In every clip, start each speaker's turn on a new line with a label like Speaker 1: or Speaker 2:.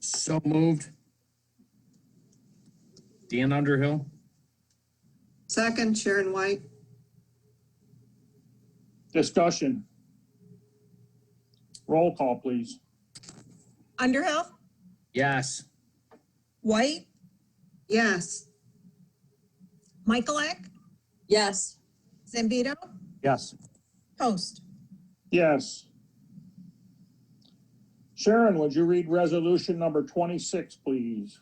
Speaker 1: So moved. Dan Underhill?
Speaker 2: Second, Sharon White.
Speaker 3: Discussion. Roll call, please.
Speaker 4: Underhill,
Speaker 1: Yes.
Speaker 4: White,
Speaker 2: Yes.
Speaker 4: Michaelak,
Speaker 5: yes,
Speaker 4: Zambito,
Speaker 3: Yes.
Speaker 4: Host.
Speaker 3: Yes. Sharon, would you read resolution number twenty-six, please?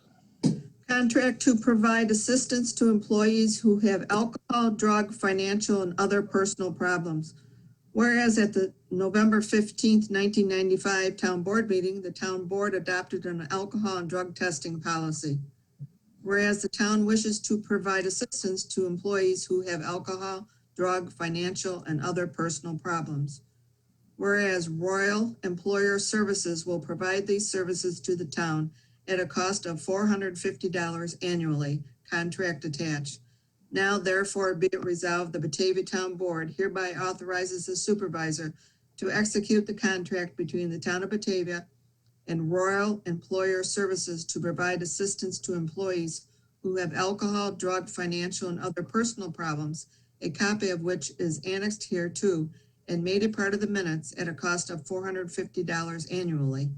Speaker 2: Contract to provide assistance to employees who have alcohol, drug, financial, and other personal problems. Whereas at the November fifteenth, nineteen ninety-five Town Board meeting, the Town Board adopted an alcohol and drug testing policy. Whereas the town wishes to provide assistance to employees who have alcohol, drug, financial, and other personal problems. Whereas Royal Employer Services will provide these services to the town at a cost of four hundred fifty dollars annually, contract attached. Now therefore be it resolved, the Batavia Town Board hereby authorizes the supervisor to execute the contract between the town of Batavia and Royal Employer Services to provide assistance to employees who have alcohol, drug, financial, and other personal problems, a copy of which is annexed here too and made a part of the minutes at a cost of four hundred fifty dollars annually.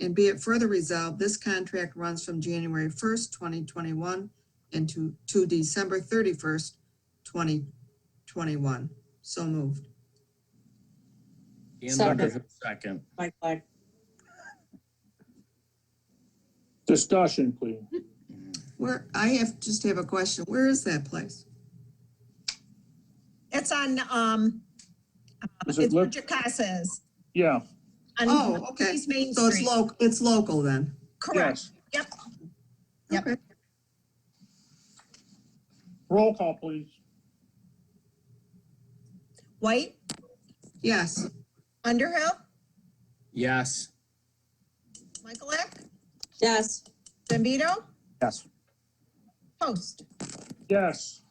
Speaker 2: And be it further resolved, this contract runs from January first, twenty twenty-one and to, to December thirty-first, twenty twenty-one. So moved.
Speaker 1: Dan
Speaker 5: Second.
Speaker 1: Underhill, second.
Speaker 5: Michaelak,
Speaker 3: Discussion, please.
Speaker 2: Where, I have, just have a question. Where is that place?
Speaker 4: It's on, um,
Speaker 3: Is it
Speaker 4: it's where
Speaker 3: lit?
Speaker 4: Jacasa's.
Speaker 3: Yeah,
Speaker 4: on
Speaker 2: Oh, okay.
Speaker 4: East Main
Speaker 2: So it's
Speaker 4: Street.
Speaker 2: local, it's local then?
Speaker 4: Correct.
Speaker 3: yes.
Speaker 4: Yep. Yep.
Speaker 2: Okay.
Speaker 3: Roll call, please.
Speaker 4: White,
Speaker 2: Yes,
Speaker 4: Underhill,
Speaker 1: Yes.
Speaker 4: Michaelak,
Speaker 5: yes,
Speaker 4: Zambito,
Speaker 3: Yes.
Speaker 4: Host.
Speaker 3: Yes.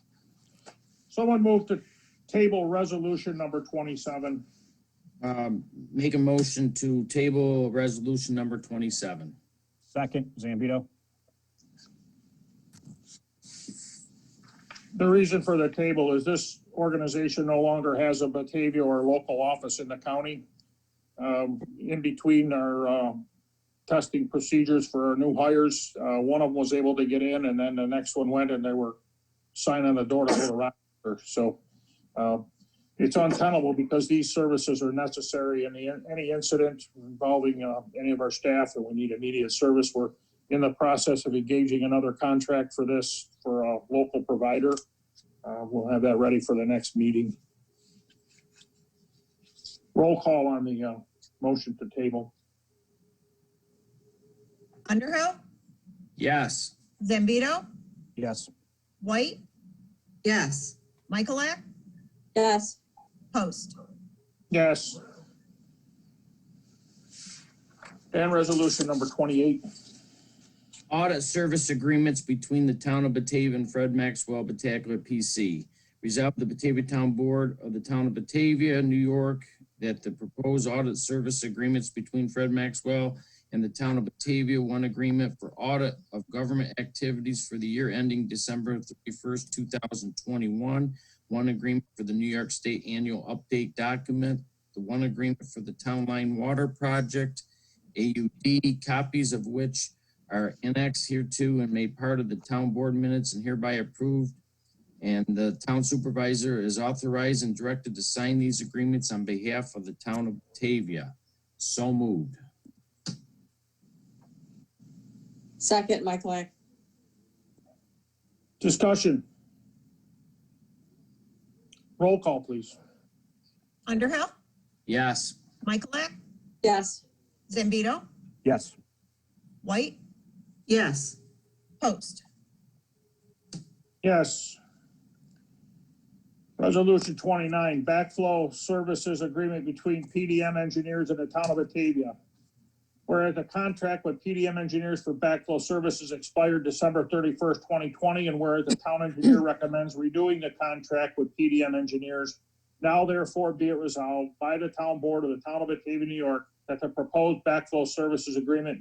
Speaker 3: Someone move to table resolution number twenty-seven.
Speaker 1: Um, make a motion to table resolution number twenty-seven.
Speaker 6: Second, Zambito.
Speaker 3: The reason for the table is this organization no longer has a Batavia or local office in the county. Um, in between our, um, testing procedures for our new hires, uh, one of them was able to get in and then the next one went and they were signing the door to go to Rochester. So, uh, it's untenable because these services are necessary in the, any incident involving, uh, any of our staff that we need immediate service. We're in the process of engaging another contract for this for a local provider. Uh, we'll have that ready for the next meeting. Roll call on the, uh, motion to table.
Speaker 4: Underhill,
Speaker 1: Yes.
Speaker 4: Zambito,
Speaker 6: Yes.
Speaker 4: White,
Speaker 2: yes.
Speaker 4: Michaelak,
Speaker 5: yes,
Speaker 4: Host.
Speaker 3: Yes. And resolution number twenty-eight.
Speaker 1: Audit service agreements between the town of Batavia and Fred Maxwell Batacula PC. Resolved the Batavia Town Board of the Town of Batavia, New York, that the proposed audit service agreements between Fred Maxwell and the town of Batavia, one agreement for audit of government activities for the year ending December thirty-first, two thousand twenty-one, one agreement for the New York State Annual Update Document, the one agreement for the Town Line Water Project, AUD, copies of which are annexed hereto and made part of the town board minutes and hereby approved. And the town supervisor is authorized and directed to sign these agreements on behalf of the town of Batavia. So moved.
Speaker 5: second, Michaelak,
Speaker 3: Discussion. Roll call, please.
Speaker 4: Underhill,
Speaker 1: Yes.
Speaker 4: Michaelak,
Speaker 5: yes,
Speaker 4: Zambito,
Speaker 6: Yes.
Speaker 4: White,
Speaker 2: Yes.
Speaker 4: Host.
Speaker 3: Yes. Resolution twenty-nine, backflow services agreement between PDM engineers and the town of Batavia. Whereas the contract with PDM engineers for backflow services expired December thirty-first, twenty twenty, and whereas the town engineer recommends redoing the contract with PDM engineers. Now therefore be it resolved by the town board of the town of Batavia, New York, that the proposed backflow services agreement